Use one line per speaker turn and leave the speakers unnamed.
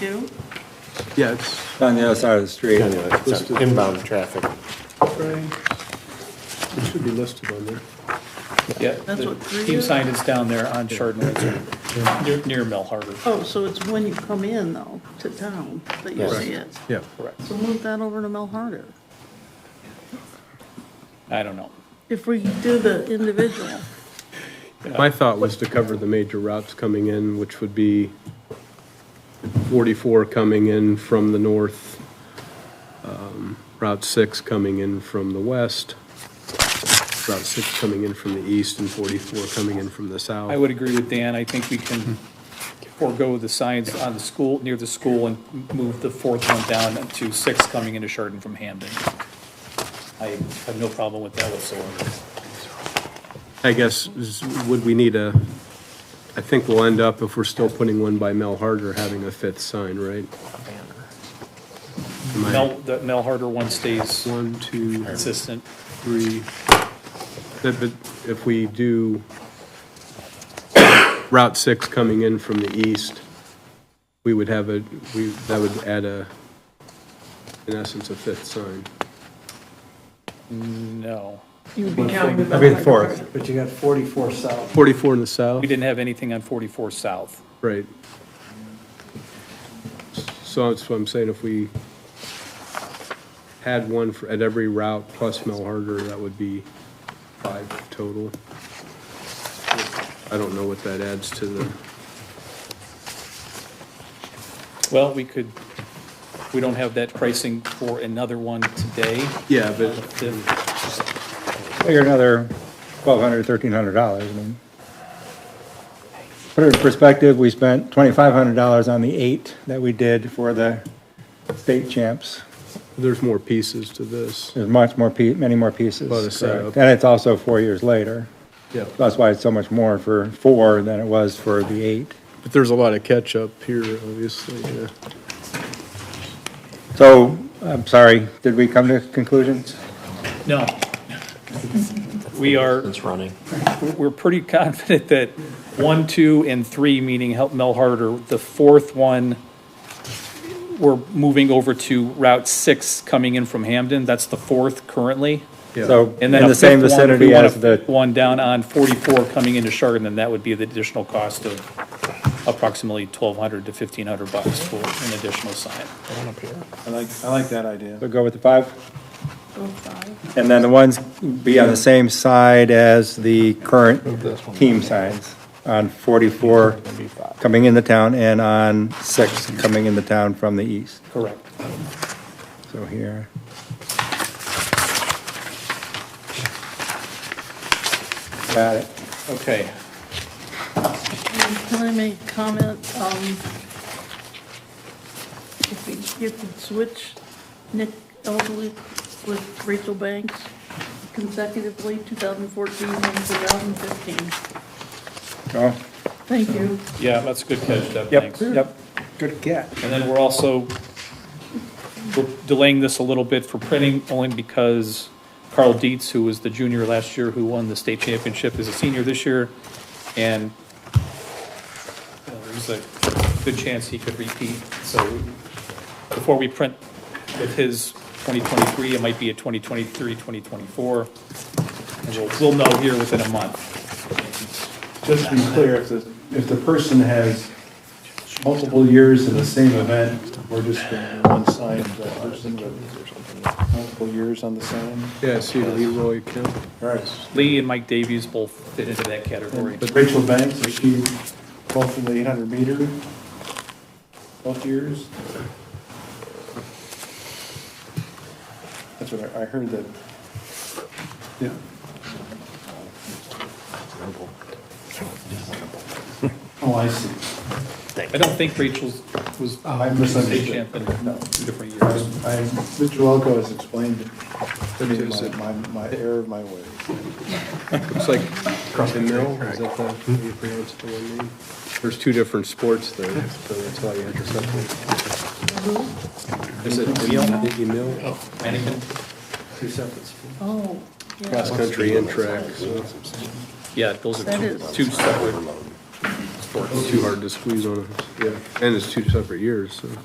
Two?
Yeah, it's,
on the other side of the street.
Anyway, it's on inbound traffic.
it should be listed on there.
Yeah,
That's
the
what three
team
is?
sign is down there on Chardon, Lake, near, near Mill Harbor,
Oh, so it's when you come in though, to town, that you
Yes.
see it.
Yeah.
correct.
So move that over to Mel Harder.
I don't know.
If we do the individual,
My thought was to cover the major routes coming in, which would be 44 coming in from the north, um, Route 6 coming in from the west, Route 6 coming in from the east, and 44 coming in from the
I
south.
would agree with Dan, I think we can forego the signs on the school, near the school, and m- move the fourth one down to six coming into Chardon from Hamden. I have no problem with that whatsoever.
I guess, is- would we need a, I think we'll end up, if we're still putting one by Mel Harder, having a fifth sign, right? Am I-
Mel, the Mel Harder one stays
One, two,
consistent.
three, that, that if we do Route 6 coming in from the east, we would have a, we, that would add a, in essence, a fifth sign.
No,
you would be counting.
I mean, fourth.
But you got 44 south.
44 in the south,
we didn't have anything on forty-four south.
right. So that's what I'm saying, if we had one for, at every route plus Mel Harder, that would be five total. I don't know what that adds to the.
Well, we could, we don't have that pricing for another one today.
Yeah, but
The-
Figure another twelve hundred, thirteen hundred dollars, I mean. Put it in perspective, we spent twenty-five hundred dollars on the eight that we did for the state champs.
there's more pieces to this.
There's much more, pe- many more pieces.
Lot of
uh,
setup.
correct. And it's also four years later.
Yeah.
That's why it's so much more for four than it was for the eight.
But there's a lot of catch-up here, obviously, yeah.
So, I'm sorry, did we come to conclusions?
No. We are,
It's running.
we're pretty confident that one, two, and three, meaning help Mel Harder, the fourth one, we're moving over to Route Six coming in from Hamden. That's the fourth currently.
So, in
And then
the same
fifth one, if we
vicinity
wanna
as the
put One down on forty-four coming into Chardon, then that would be the additional cost of approximately twelve hundred to fifteen hundred bucks for an additional sign.
I like, I like that idea. So go with the five?
Go Oh, five.
And then the ones be on the same side as the current team signs on 44 coming in the town and on 6 coming in the town from the east.
Correct.
So here. Got it.
Okay.
Can I make a comment? Um, If we, if we switch Nick Elderly with Rachel Banks consecutively, 2014 and 2015.
Oh,
Thank you.
Yeah, that's a good catch, Deb,
Yep,
thanks.
yep. Good get.
And then we're also, we're delaying this a little bit for printing, only because Carl Dietz, who was the junior last year, who won the state championship, is a senior this year, and uh, there's a good chance he could repeat, so before we print with his 2023, it might be a 2023, 2024, and we'll, we'll know here within a month.
Just to be clear, if the, if the person has multiple years in the same event, we're just going to one sign to that person with multiple years on the same.
Yeah, see Leroy Kemp.
All right.
Lee and Mike Davies both fit into that category.
But Rachel Banks, is she both in the 800 meter, both years? That's what I, I heard that. Yeah. Oh, I see.
I don't think Rachel's was
Oh, I
state
misunderstood.
champion
No.
two different
I,
years.
I- Mr. Welko has explained to me my, my my error of my ways.
Looks like Emil, is that the, how you pronounce the one name? There's two different sports there, so that's why you had to separate. Is it Emil? Emil?
Mannequin?
Two separate schools.
Oh, yeah,
Cross country and track, so.
Yeah, those
That
are two,
is-
two separate
It's too hard to squeeze on, it. and it's two separate years, so.